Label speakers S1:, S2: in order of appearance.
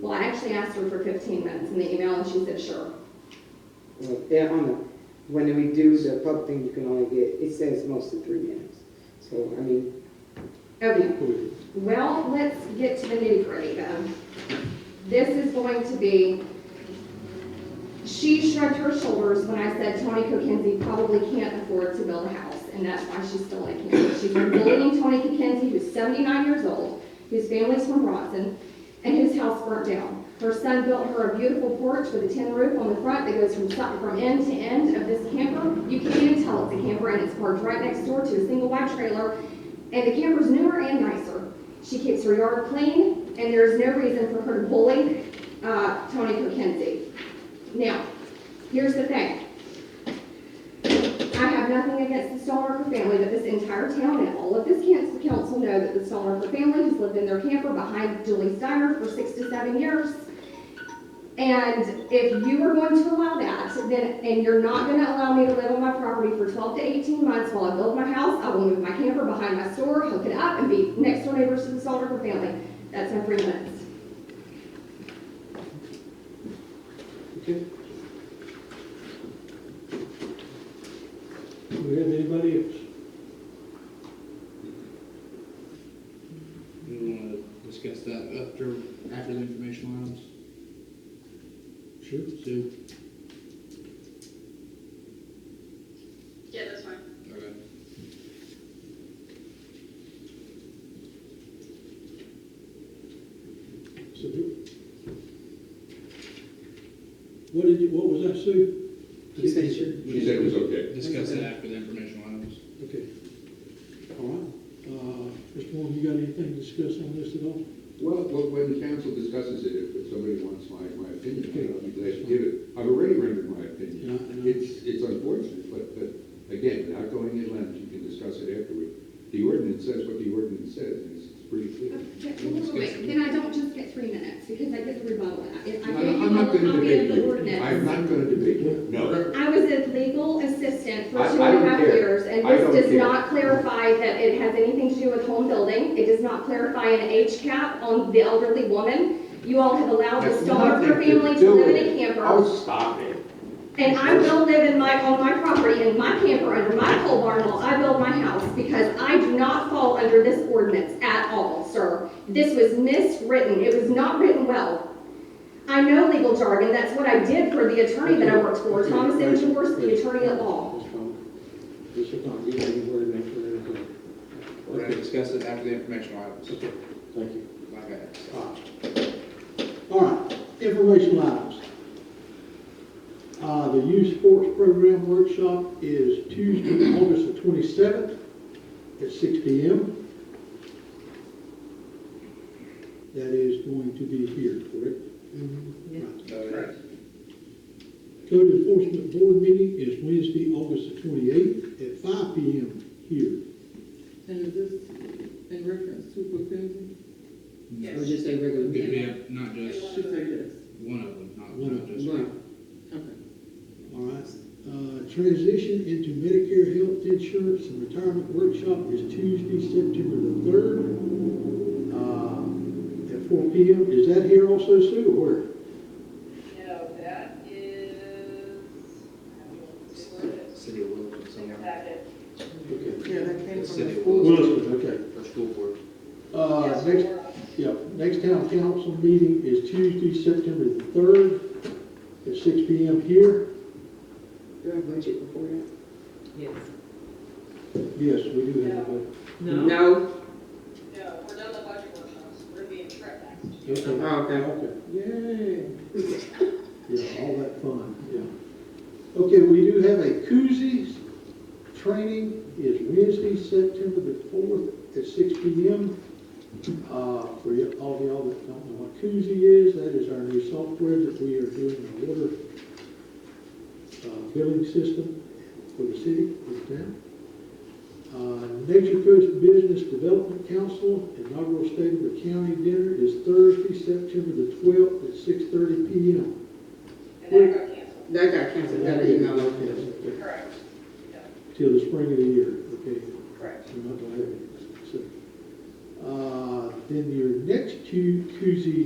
S1: Well, I actually asked her for fifteen minutes in the email and she said, sure.
S2: Well, Yeah, on the, when we do the pub thing, you can only get, it says mostly three minutes. So, I mean,
S1: Okay,
S2: hmm,
S1: well, let's get to the nitty gritty then. This is going to be, she shrugged her shoulders when I said Tony Kokenzie probably can't afford to build a house and that's why she's still in Kansas. She's been bullying Tony Kokenzie, who's seventy-nine years old, whose family's from Bronson, and whose house burnt down. Her son built her a beautiful porch with a tin roof on the front that goes from, si- from end to end of this camper. You can't even tell it's a camper and it's parked right next door to a single wide trailer. And the camper's newer and nicer. She keeps her yard clean and there's no reason for her to bully, uh, Tony Kokenzie. Now, here's the thing. I have nothing against the Stalnaker family, but this entire town and all of this council council know that the Stalnaker family has lived in their camper behind Julie's Diner for six to seven years. And if you are going to allow that, then, and you're not gonna allow me to live on my property for twelve to eighteen months while I build my house, I will move my camper behind my store, hook it up, and be next door neighbors to the Stalnaker family. That's my three minutes.
S3: Okay. Do we have anybody else?
S4: You wanna uh, discuss that after, after the informational items?
S3: Sure.
S4: Do.
S5: Yeah, that's fine.
S4: Okay.
S3: Sue? What did you, what was that, Sue?
S2: She said sure.
S6: She said it was okay.
S4: Discuss it after the informational items.
S3: Okay. All right. Uh, Mr. Moore, you got anything to discuss on this at all?
S6: Well, well, when council discusses it, if- if somebody wants my, my opinion, I'll be glad to give it. I've already rendered my opinion.
S3: Yeah, I know.
S6: It's, it's unfortunate, but, but again, without going in length, you can discuss it afterward. The ordinance says what the ordinance says, and it's it's pretty clear.
S1: Wait, wait, Then I don't just get three minutes, because I get to rebuttal. If I
S6: I'm
S1: give you
S6: I'm
S1: all
S6: not
S1: the copy
S6: gonna
S1: of
S6: debate
S1: the
S6: you.
S1: ordinance.
S6: I'm not gonna debate you. No,
S1: I was a legal assistant for
S6: I-
S1: two
S6: I
S1: and a
S6: don't
S1: half
S6: care.
S1: years, and
S6: I
S1: this
S6: don't
S1: does
S6: care.
S1: not clarify that it has anything to do with home building. It does not clarify an age cap on the elderly woman. You all have allowed the
S6: that's
S1: Stalnaker
S6: nothing
S1: family to
S6: to do
S1: live
S6: with
S1: in a
S6: it.
S1: camper,
S6: Oh, stop it.
S1: and I will live in my, on my property, in my camper, under my pole barn while I build my house, because I do not fall under this ordinance at all, sir. This was miswritten. It was not written well. I know legal jargon. That's what I did for the attorney that I worked for, Thomas M. George, the attorney at law.
S3: That's fine. This is not getting anywhere next to anything.
S4: We're gonna
S3: Okay,
S4: discuss it after the informational items.
S3: thank you.
S4: Like that.
S3: All right. All right, informational items. Uh, the youth sports program workshop is Tuesday, August the twenty-seventh at six P M. That is going to be here, correct? Right.
S4: Correct.
S3: Code enforcement board meeting is Wednesday, August the twenty-eighth at five P M here.
S7: And is this in reference to Procunzi?
S5: Yes.
S7: Or just a regular
S4: We
S7: meeting?
S4: have not just
S7: She said yes.
S4: one of them, not,
S3: One
S4: not
S3: of
S4: just.
S7: Right, okay.
S3: All right, uh, transition into Medicare health insurance and retirement workshop is Tuesday, September the third, uh, at four P M. Is that here also, Sue, or where?
S8: No, that is, I don't know, where it is.
S4: City of Wilton somewhere.
S8: That is-
S3: Okay.
S7: Yeah, that came
S4: The
S7: from the
S4: city of
S7: school.
S4: Wilton.
S3: Williston, okay.
S4: For school board.
S3: Uh,
S8: Yes,
S3: next,
S8: we're on.
S3: yeah, next town council meeting is Tuesday, September the third, at six P M here.
S2: Do
S7: uh,
S2: I have budget before that?
S7: Yes.
S3: Yes, we do have a,
S7: No?
S2: No?
S8: No, we're done the budget workshops, we're being tracked next.
S3: okay, okay.
S2: Yay.
S3: Yeah, all that fun, yeah. Okay, we do have a koozies training, is Wednesday, September the fourth at six P M. Uh, for y- all of y'all that don't know what koozie is, that is our new software that we are doing our water uh, billing system for the city, for the town. Uh, Nature Coast Business Development Council inaugural state of the county dinner is Thursday, September the twelfth at six thirty P M.
S8: And that got canceled,
S2: That got canceled, that email.
S3: Till
S8: correct. Yeah,
S3: the spring of the year, okay,
S8: correct.
S3: so not gonna have it. So, Uh, then your next two koozie